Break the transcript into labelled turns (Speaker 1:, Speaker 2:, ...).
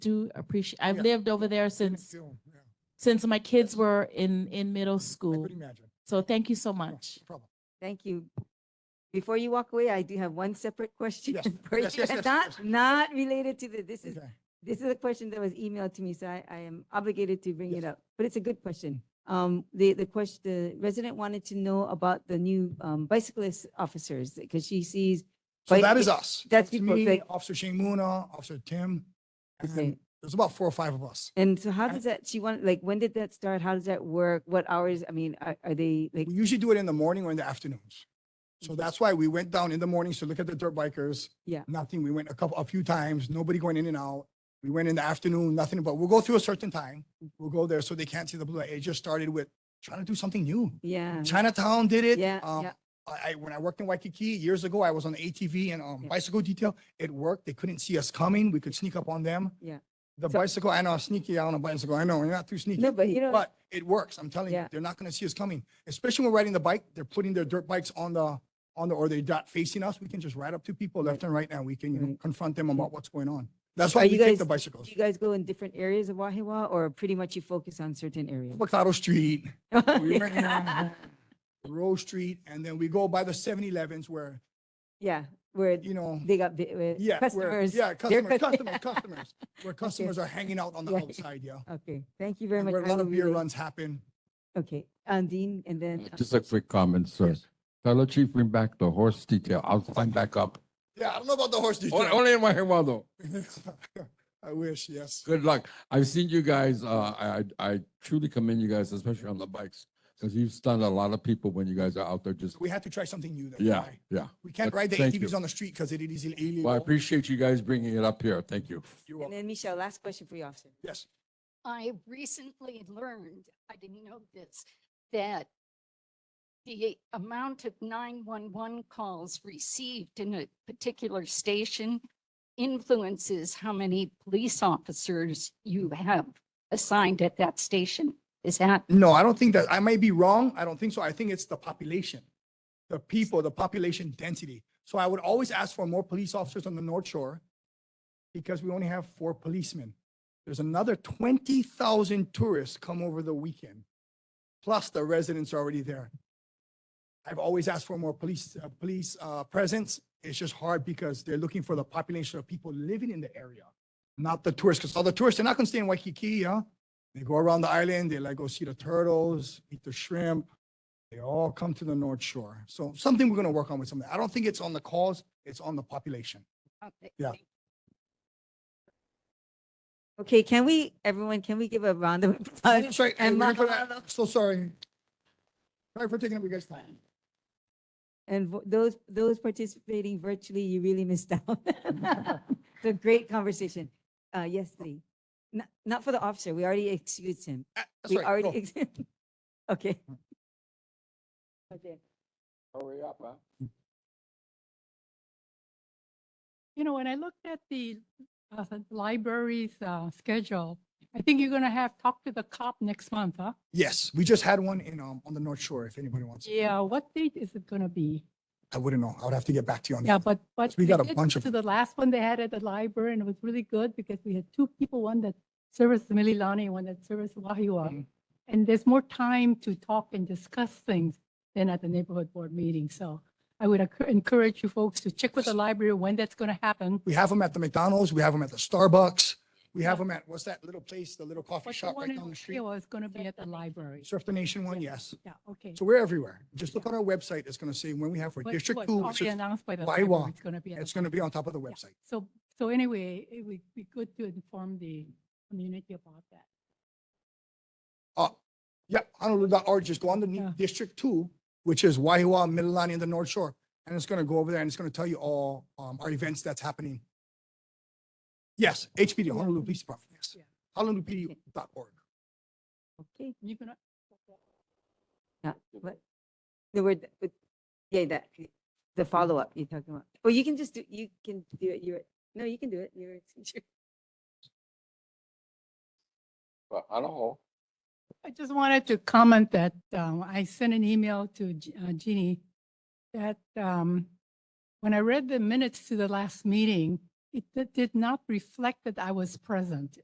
Speaker 1: do appreciate, I've
Speaker 2: Yeah.
Speaker 1: lived over there
Speaker 2: Seen it
Speaker 1: since,
Speaker 2: too, yeah.
Speaker 1: since my kids were in, in middle
Speaker 2: I
Speaker 1: school.
Speaker 2: could imagine.
Speaker 1: So thank you so
Speaker 2: Yeah,
Speaker 1: much.
Speaker 2: no problem.
Speaker 3: Thank you. Before you walk away, I do have one separate question
Speaker 2: Yes,
Speaker 3: for you,
Speaker 2: yes, yes,
Speaker 3: and
Speaker 2: yes,
Speaker 3: not,
Speaker 2: yes.
Speaker 3: not related to the, this is,
Speaker 2: Okay.
Speaker 3: this is a question that was emailed to me, so I, I am obligated to bring it
Speaker 2: Yes.
Speaker 3: up, but it's a good question. Um, the, the question, the resident wanted to know about the new, um, bicyclist officers, because she sees,
Speaker 2: So
Speaker 3: But
Speaker 2: that is
Speaker 3: it-
Speaker 2: us.
Speaker 3: that's
Speaker 2: It's
Speaker 3: people
Speaker 2: me,
Speaker 3: say-
Speaker 2: Officer Shane Muna, Officer Tim, and
Speaker 3: Okay.
Speaker 2: there's about four or five of us.
Speaker 3: and so how
Speaker 2: Uh-huh. I-
Speaker 3: does that, she want, like, when did that start? How does that work? What hours? I mean, are, are they, like,
Speaker 2: We usually do it in the morning or in the afternoons. So that's why we went down in the mornings to look at the dirt bikers.
Speaker 3: Yeah.
Speaker 2: Nothing. We went a couple, a few times, nobody going in and out. We went in the afternoon, nothing, but we'll go through a certain time.
Speaker 3: Mm-hmm.
Speaker 2: We'll go there so they can't see the blue. light. It just started with trying to do something new.
Speaker 3: yeah,
Speaker 2: Chinatown did it.
Speaker 3: Mm-hmm. yeah,
Speaker 2: Um,
Speaker 3: yeah,
Speaker 2: I, I, when I worked in Waikiki years ago, I was on the ATV and um,
Speaker 3: Yeah.
Speaker 2: bicycle detail. It worked. They couldn't see us coming. We could sneak up on them.
Speaker 3: Yeah.
Speaker 2: The
Speaker 3: So-
Speaker 2: bicycle, I know, sneaky out on a bicycle. I know, you're not too sneaky.
Speaker 3: No, but you know-
Speaker 2: But it works. I'm telling you,
Speaker 3: Yeah.
Speaker 2: they're not going to see us coming, especially when riding the bike. They're putting their dirt bikes on the, on the, or they're not facing us. We can just ride up to people left and right now. We can you know,
Speaker 3: Right. Mm-hmm.
Speaker 2: confront them about what's going on. That's
Speaker 3: Are
Speaker 2: why we
Speaker 3: you
Speaker 2: take the
Speaker 3: guys- Do
Speaker 2: bicycles.
Speaker 3: you guys go in different areas of Wahewa or pretty much you focus on certain areas?
Speaker 2: Bacaro Street, we went
Speaker 3: Yeah,
Speaker 2: around Rose Street, and then we go by the 7-Elevens where,
Speaker 3: where
Speaker 2: you know,
Speaker 3: they got bi- where
Speaker 2: Yeah, we're-
Speaker 3: customers.
Speaker 2: Yeah,
Speaker 3: They're
Speaker 2: customers,
Speaker 3: cus-
Speaker 2: customers, customers, where customers are hanging out on the
Speaker 3: Yeah.
Speaker 2: outside, yeah.
Speaker 3: Okay, thank you very
Speaker 2: And
Speaker 3: much.
Speaker 2: Where a
Speaker 3: I
Speaker 2: lot
Speaker 3: will
Speaker 2: of beer
Speaker 3: relay-
Speaker 2: runs happen.
Speaker 3: Okay, Andine and then. uh,
Speaker 4: Just a quick comment, sir.
Speaker 2: Yes.
Speaker 4: Fellow chief, bring back the horse detail. I'll sign back up.
Speaker 2: Yeah, I don't know about the horse
Speaker 4: Only
Speaker 2: detail.
Speaker 4: only in Wahewa though.
Speaker 2: I wish, yes.
Speaker 4: Good luck. I've seen you guys, uh, I, I truly commend you guys, especially on the bikes. Cause you've stunned a lot of people when you guys are out there just,
Speaker 2: We had to try something new. that's
Speaker 4: yeah,
Speaker 2: why.
Speaker 4: yeah.
Speaker 2: We can't
Speaker 4: But
Speaker 2: ride the
Speaker 4: thank
Speaker 2: ATVs
Speaker 4: you.
Speaker 2: on the street because it is
Speaker 4: Well, I
Speaker 2: illegal.
Speaker 4: appreciate you guys bringing it up here. Thank you.
Speaker 2: You're
Speaker 3: And
Speaker 2: welcome.
Speaker 3: then Michelle, last question for you, officer.
Speaker 2: Yes,
Speaker 5: I recently learned, I didn't know this, that the amount of 911 calls received in a particular station influences how many police officers you have assigned at that station. Is that,
Speaker 2: no, I don't think that, I might be wrong. I don't think so. I think it's the population. The people, the population density. So I would always ask for more police officers on the North Shore because we only have four policemen. There's another twenty thousand tourists come over the weekend, plus the residents are already there. I've always asked for more police, uh, police, uh, presence. It's just hard because they're looking for the population of people living in the area, not the tourists, because all the tourists, they're not gonna stay in Waikiki, huh? They go around the island, they like go see the turtles, eat the shrimp. They all come to the North Shore. So something we're gonna work on with something. I don't think it's on the cause, it's on the population.
Speaker 5: okay,
Speaker 2: Yeah.
Speaker 3: Okay, can we, everyone, can we give a round of applause?
Speaker 2: That's right.
Speaker 3: and
Speaker 2: And we're gonna-
Speaker 3: Mahalo.
Speaker 2: So sorry. Sorry for taking up your guys' time.
Speaker 3: And vo- those, those participating virtually, you really missed out. The great conversation. Uh, yes, Lee. Not, not for the officer. We already excused him.
Speaker 2: Ah, that's
Speaker 3: We
Speaker 2: right,
Speaker 3: already,
Speaker 2: go.
Speaker 3: ex- okay. Okay.
Speaker 4: Hurry up, huh?
Speaker 6: you know, when I looked at the uh, library's uh, schedule, I think you're going to have talk to the cop next month, huh?
Speaker 2: Yes, we just had one in, um, on the North Shore, if anybody wants.
Speaker 6: Yeah, Uh, what date is it going to be?
Speaker 2: I wouldn't know. I would have to get back to you on
Speaker 6: Yeah,
Speaker 2: that.
Speaker 6: but, but.
Speaker 2: Um, We
Speaker 6: they
Speaker 2: got a
Speaker 6: did
Speaker 2: bunch of-
Speaker 6: To the last one they had at the library and it was really good because we had two people, one that serves Mililani, one that serves Wahiwa.
Speaker 2: Mhm.
Speaker 6: And there's more time to talk and discuss things than at the neighborhood board meeting. So I would encour- encourage you folks to check with the library when that's going to happen.
Speaker 2: We have them at the McDonald's, we have them at the Starbucks, we have them at, what's that little place, the little coffee
Speaker 6: But
Speaker 2: shop
Speaker 6: one
Speaker 2: right
Speaker 6: in
Speaker 2: down the street?
Speaker 6: Wahiwa is going to be at the library.
Speaker 2: Surf the Nation one, yes.
Speaker 6: Yeah, okay.
Speaker 2: So we're everywhere. Just look on our website. It's going to say when we have for
Speaker 6: But
Speaker 2: District
Speaker 6: what's
Speaker 2: Two, which
Speaker 6: Already
Speaker 2: is-
Speaker 6: announced by the
Speaker 2: Waiwa.
Speaker 6: library, it's going to be. at the
Speaker 2: it's going to be
Speaker 6: library.
Speaker 2: on top of the
Speaker 6: oh, Yeah.
Speaker 2: website.
Speaker 6: So, so anyway, it would be good to inform the community about that.
Speaker 2: Uh, yeah, Honolulu, or just go on
Speaker 6: Yeah.
Speaker 2: the District Two, which is Waiwa, Mililani, and the North Shore. And it's going to go over there and it's going to tell you all, um, our events that's happening. Yes, HPD, Honolulu Police Department, yes.
Speaker 6: Yeah.
Speaker 2: HonoluluPD.org.
Speaker 3: Okay.
Speaker 6: You're gonna,
Speaker 3: Yeah, but the word, but, yeah, that, the follow-up you're talking about. Well, you can just do, you can do it, you're, no, you can do it, you're.
Speaker 4: Well, I don't know.
Speaker 6: I just wanted to comment that um, I sent an email to Je- uh, Jeannie that um, when I read the minutes to the last meeting, it did- did not reflect that I was present.